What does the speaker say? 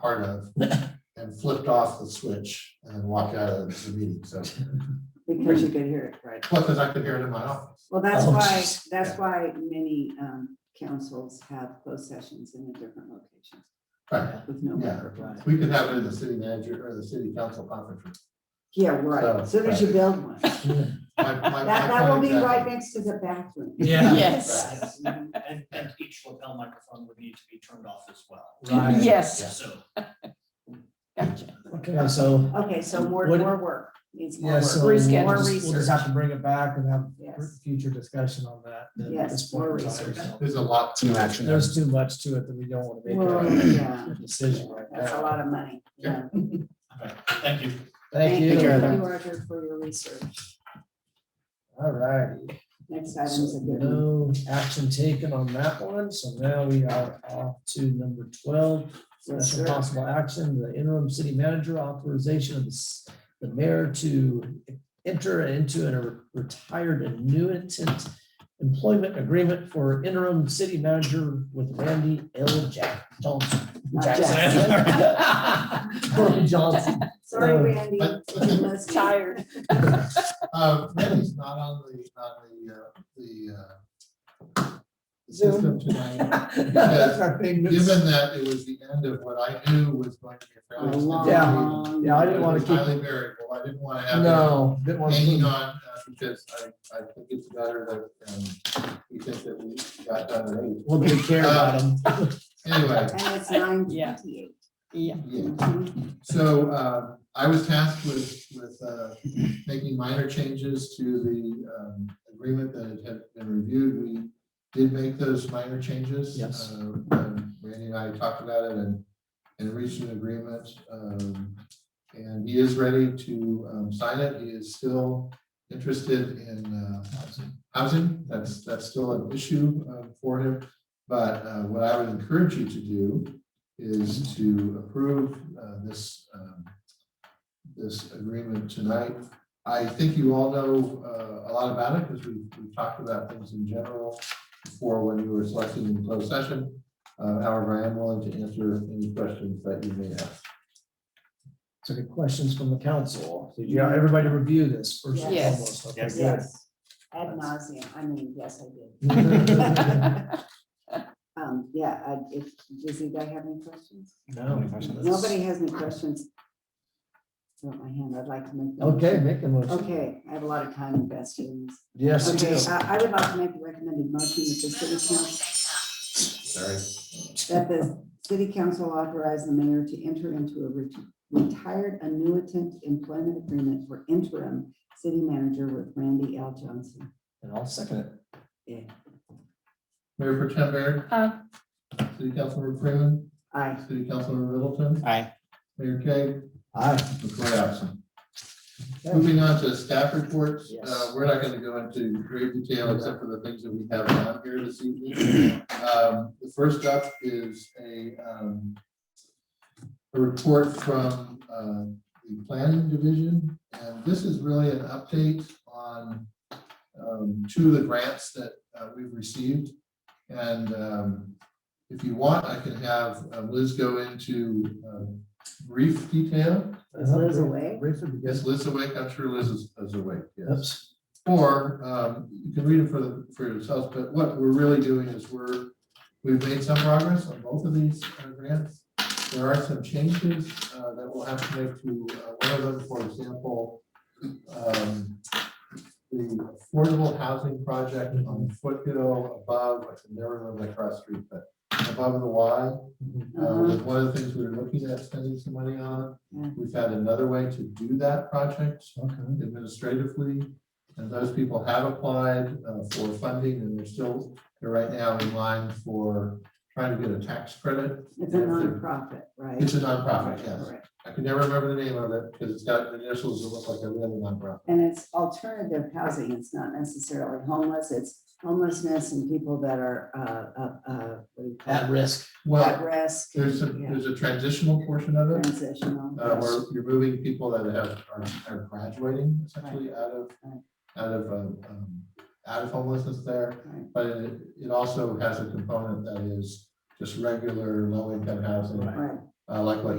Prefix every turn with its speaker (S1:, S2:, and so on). S1: part of and flipped off the switch and walked out of the meeting. So,
S2: because you could hear it, right?
S1: because I could hear it in my office.
S2: Well, that's
S3: Mm. Oh,
S2: why,
S3: jeez.
S2: that's why many um, councils have closed sessions in the different locations
S1: Right.
S2: with no
S1: Yeah.
S2: record.
S1: We could have it in the city manager or the city council conference room.
S2: Yeah,
S1: So-
S2: right. So there's you build one. That,
S1: My- my- my
S2: that will
S1: point
S2: be right
S1: exactly.
S2: next to the bathroom.
S3: Yeah.
S4: Yes.
S2: Mhm.
S5: And, and each lapel microphone would need to be turned off as well.
S3: Right.
S4: Yes.
S5: So,
S4: Gotcha.
S3: Okay, so,
S2: Okay, so more,
S3: What-
S2: more work. Needs more
S3: yeah,
S2: work.
S3: so
S4: More
S3: we'll just,
S4: reschedule.
S3: we'll just have to bring it back and have
S2: Yes.
S3: future discussion on that. then at
S2: Yes,
S3: this point
S2: more
S3: in time,
S2: research.
S3: so.
S1: There's a lot. to
S6: Two action
S3: There's too much to it that we don't want to
S2: Well,
S3: make
S2: yeah,
S3: a decision right
S2: that's a
S3: now.
S2: lot of money. Yeah.
S5: okay, thank you.
S3: Thank you.
S2: you, Roger, for your research.
S3: All righty.
S2: Next item's a good one.
S3: No action taken on that one, so now we are off to number twelve.
S2: Yes,
S3: Discussion
S2: sir.
S3: possible action, the interim city manager authorization of the s- the mayor to enter into a retired annuitant employment agreement for interim city manager with Randy L. Jack Johnson.
S2: Not
S3: Jackson. Randy Johnson.
S2: Sorry,
S3: No.
S2: Randy.
S1: But-
S2: Must be-
S4: Tired.
S1: Uh, Randy's not on the, on the, uh, the, uh, the
S3: Zoom.
S1: system tonight.
S3: That's our thing.
S1: Given that it was the end of what I knew was going to be a
S2: A
S1: fairly.
S2: long-
S1: extended meeting,
S3: Yeah, I didn't want
S1: it
S3: to
S1: was
S3: keep,
S1: Highly variable. I didn't want to have. it
S3: no, didn't want
S1: Hanging
S3: to.
S1: on, uh, because I, I think it's better that, um, we think that we got done at eight.
S3: We'll take care about him.
S1: Anyway,
S2: And it's nine twenty-eight. Mm-hmm.
S4: Yeah.
S1: yeah. So uh, I was tasked with, with uh, making minor changes to the um, agreement that had been reviewed. We did make those minor changes.
S3: Yes.
S1: Uh, and Randy and I talked about it and, and reached an agreement. um, And he is ready to um, sign it. He is still interested in uh, housing. That's, that's still an issue uh, for him. But uh, what I would encourage you to do is to approve uh, this, um, this agreement tonight. I think you all know uh, a lot about it because we've, we've talked about things in general before when you were selected in closed session. Uh, However, I am willing to answer any questions that you may have.
S3: So any questions from the council? Did you, everybody review this first and
S4: Yes.
S3: foremost? Okay,
S5: Yes.
S3: good.
S2: Yes, ad nauseam. I mean, yes, I did. Um, yeah, I, if, does anybody have any questions?
S3: No.
S6: Any questions?
S2: Nobody has any questions? Throw up my hand. I'd like to make. the
S3: Okay,
S2: motion.
S3: make a motion.
S2: Okay, I have a lot of time invested in this.
S3: Yes, you
S2: Okay,
S3: do.
S2: I, I would like to make a recommended motion that the city council,
S1: Sorry.
S2: that the city council authorize the mayor to enter into a ret- retired annuitant employment agreement for interim city manager with Randy L. Johnson.
S3: And I'll second it.
S2: Yeah,
S1: Mayor Pro Tem Barry,
S4: Aye.
S1: City Councilmember Freeman,
S2: aye.
S1: City Councilmember Middleton,
S6: Aye.
S1: Mayor Kay,
S3: Aye.
S1: McCoy absent.
S3: Okay.
S1: Moving on to staff reports,
S3: Yes.
S1: uh, we're not gonna go into great detail except for the things that we have on here this evening. Um, the first up is a, um, a report from, uh, the planning division, and this is really an update on, um, two of the grants that, uh, we've received. And, um, if you want, I can have uh, Liz go into, um, brief detail.
S2: Is Liz away?
S3: Brief would be good.
S1: Yes, Liz awake, I'm sure Liz is, is awake, yes.
S3: Oops.
S1: Or, um, you can read it for the, for yourselves, but what we're really doing is we're, we've made some progress on both of these uh, grants. There are some changes, uh, that we'll have to make to, uh, one of them, for example, um, the affordable housing project on Foothill above, I can never remember that cross street, but above the Y. Uh,
S2: Uh-huh.
S1: was one of the things we were looking at spending some money on.
S2: Yeah.
S1: We found another way to do that project
S3: Okay.
S1: administratively. And those people have applied uh, for funding and they're still, they're right now in line for trying to get a tax credit.
S2: It's a nonprofit, right?
S1: It's a nonprofit, yes.
S2: Correct.
S1: I can never remember the name of it because it's got initials that look like every other nonprofit.
S2: And it's alternative housing. It's not necessarily homeless. It's homelessness and people that are, uh, uh, uh, what do you call
S3: At
S2: it?
S3: risk.
S1: Well,
S2: At risk.
S1: there's a,
S2: yeah,
S1: there's a transitional portion of it
S2: Transitional.
S1: uh, where you're moving people that have, are, are graduating essentially out of,
S2: Right.
S1: out of, um, um, out of homelessness there.
S2: Right.
S1: But it, it also has a component that is just regular low income housing.
S3: Right.
S2: Right,
S1: uh, like what